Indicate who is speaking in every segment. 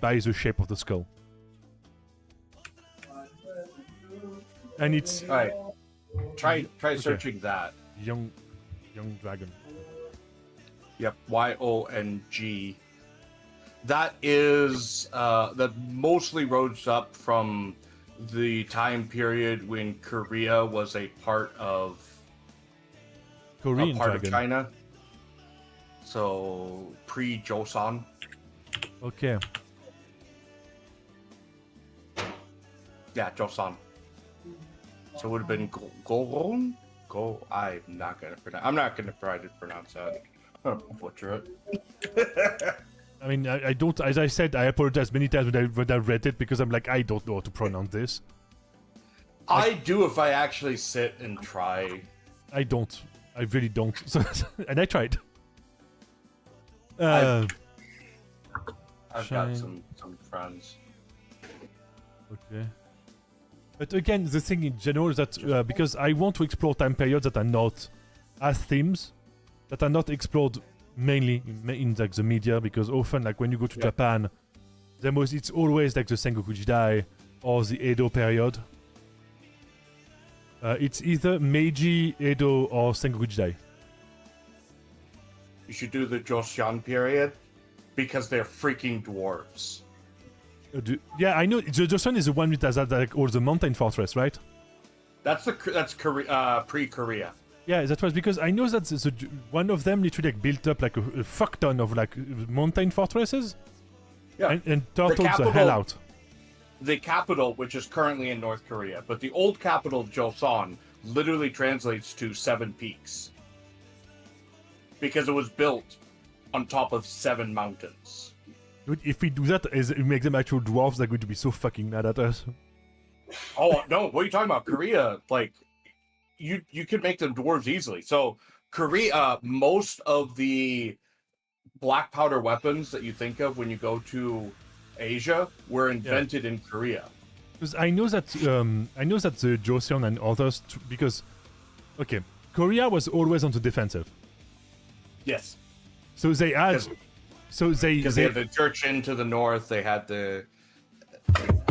Speaker 1: That is the shape of the skull. And it's
Speaker 2: All right. Try try searching that.
Speaker 1: young, young dragon.
Speaker 2: Yep. Y O N G. That is uh, that mostly rose up from the time period when Korea was a part of
Speaker 1: Korean
Speaker 2: a part
Speaker 1: dragon.
Speaker 2: of China. So pre Joseon.
Speaker 1: Okay.
Speaker 2: Yeah, Joseon. So it would have been Go- Goron. Go. I'm not gonna pronounce. I'm not gonna try to pronounce that. I'm gonna butcher it.
Speaker 1: I mean, I, I don't. As I said, I apologize many times when I, when I read it because I'm like, I don't know how to pronounce this.
Speaker 2: I do if I actually sit and try.
Speaker 1: I don't. I really don't. So, and I tried.
Speaker 2: I-
Speaker 1: Uh,
Speaker 2: I've
Speaker 1: Shine.
Speaker 2: got some some friends.
Speaker 1: Okay. But again, the thing in general is that uh, because I want to explore time periods that are not as themes, that are not explored mainly in, in like the media, because often like when you go to
Speaker 2: Yeah.
Speaker 1: Japan, the most it's always like the Sengoku Jidai or the Edo period. Uh, it's either Meiji, Edo, or Sengoku Jidai.
Speaker 2: You should do the Joseon period because they're freaking dwarves.
Speaker 1: Uh, do- yeah, I know. The Joseon is the one with that, that, like all the mountain fortress, right?
Speaker 2: That's the that's Korea uh, pre-Korea.
Speaker 1: Yeah, that was because I know that the, the, one of them literally like built up like a, a fuck ton of like mountain fortresses
Speaker 2: Yeah.
Speaker 1: and, and turtled the,
Speaker 2: capital-
Speaker 1: hell out.
Speaker 2: the capital, which is currently in North Korea, but the old capital Joseon literally translates to seven peaks because it was built on top of seven mountains.
Speaker 1: Dude, if we do that, is we make them actual dwarves, they're going to be so fucking mad at us.
Speaker 2: Oh no, what are you talking about? Korea, like you you could make them dwarves easily. So Korea, uh, most of the black powder weapons that you think of when you go to Asia were invented in Korea.
Speaker 1: Because I know that um, I know that the Joseon and others t- because okay, Korea was always on the defensive,
Speaker 2: Yes.
Speaker 1: so they had,
Speaker 2: Because
Speaker 1: so they,
Speaker 2: because they had the church in to the north. They had the.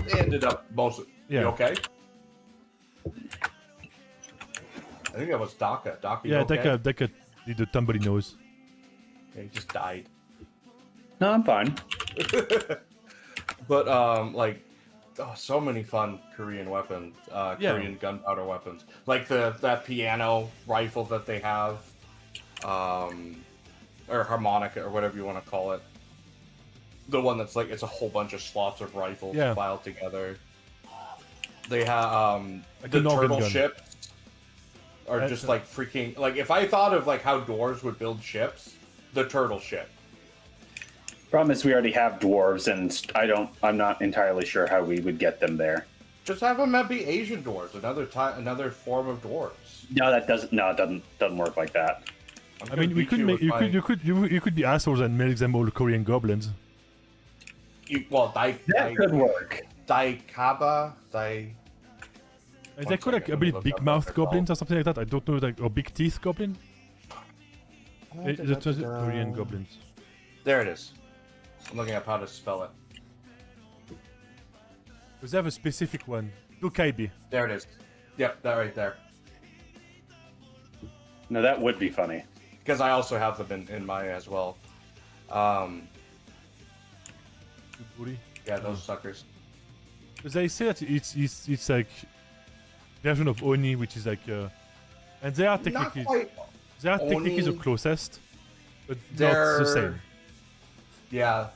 Speaker 2: They ended up most.
Speaker 1: Yeah.
Speaker 2: You okay? I think that was Daka. Daka. you
Speaker 1: yeah,
Speaker 2: okay?
Speaker 1: like a like a did a tumbly nose.
Speaker 2: Yeah, He just died.
Speaker 3: No, I'm fine.
Speaker 2: But um, like, oh, so many fun Korean weapons, uh,
Speaker 1: Yeah.
Speaker 2: Korean gunpowder weapons, like the that piano rifle that they have, um, or harmonica or whatever you want to call it. The one that's like it's a whole bunch of slots of rifles
Speaker 1: Yeah.
Speaker 2: filed together. They have um,
Speaker 1: Like
Speaker 2: the
Speaker 1: an organ
Speaker 2: turtle
Speaker 1: gun.
Speaker 2: ships are
Speaker 1: That's
Speaker 2: just
Speaker 1: a-
Speaker 2: like freaking like if I thought of like how dwarves would build ships, the turtle ship.
Speaker 3: Problem is, we already have dwarves, and st- I don't. I'm not entirely sure how we would get them there.
Speaker 2: Just have them be Asian dwarves, another time, another form of dwarves.
Speaker 3: No, that doesn't. No, it doesn't. Doesn't work like that.
Speaker 2: I'm
Speaker 1: I
Speaker 2: gonna
Speaker 1: mean, we
Speaker 2: beat
Speaker 1: could make
Speaker 2: with
Speaker 1: you
Speaker 2: my-
Speaker 1: could you could you, you could be assholes and make them all Korean goblins.
Speaker 2: you- well, Dai, Dai,
Speaker 3: That could work.
Speaker 2: Daikaba, Dai.
Speaker 1: Is
Speaker 2: One
Speaker 1: that called like
Speaker 2: second,
Speaker 1: a
Speaker 2: let me
Speaker 1: bit
Speaker 2: look
Speaker 1: big
Speaker 2: up what
Speaker 1: mouth
Speaker 2: they're called.
Speaker 1: goblins or something like that? I don't know, like or big teeth goblin. Eh, That was
Speaker 2: uh,
Speaker 1: Korean goblins.
Speaker 2: There it is. I'm looking up how to spell it.
Speaker 1: Because they have a specific one. Dokaibi.
Speaker 2: There it is. Yep, that right there.
Speaker 3: No, that would be funny.
Speaker 2: Because I also have them in, in my as well. Um, yeah,
Speaker 1: Hmm.
Speaker 2: those suckers.
Speaker 1: Because they say that it's it's it's like version of Oni, which is like, uh, and they are
Speaker 2: Not
Speaker 1: technically
Speaker 2: quite.
Speaker 1: they are technically the
Speaker 2: Oni.
Speaker 1: closest, but not
Speaker 2: They're-
Speaker 1: the same.
Speaker 2: Yeah,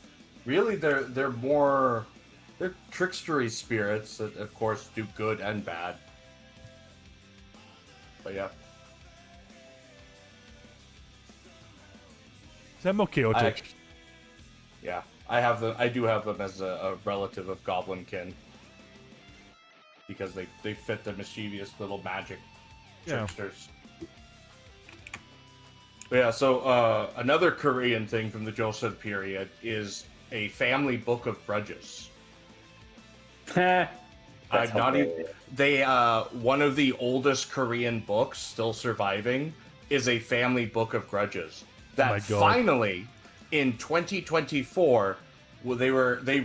Speaker 2: really, they're they're more they're trickstery spirits that, of course, do good and bad. But yeah,
Speaker 1: They're more
Speaker 2: I
Speaker 1: chaotic.
Speaker 2: act- yeah, I have them. I do have them as a, a relative of Goblinkin because they they fit the mischievous little magic
Speaker 1: Yeah.
Speaker 2: tricksters. But yeah, so uh, another Korean thing from the Joseon period is a family book of grudges.
Speaker 3: Heh. That's
Speaker 2: I'm not e- even.
Speaker 3: hilarious.
Speaker 2: They uh, one of the oldest Korean books still surviving is a family book of grudges. That
Speaker 1: Oh my God.
Speaker 2: finally, in 2024, well, they were they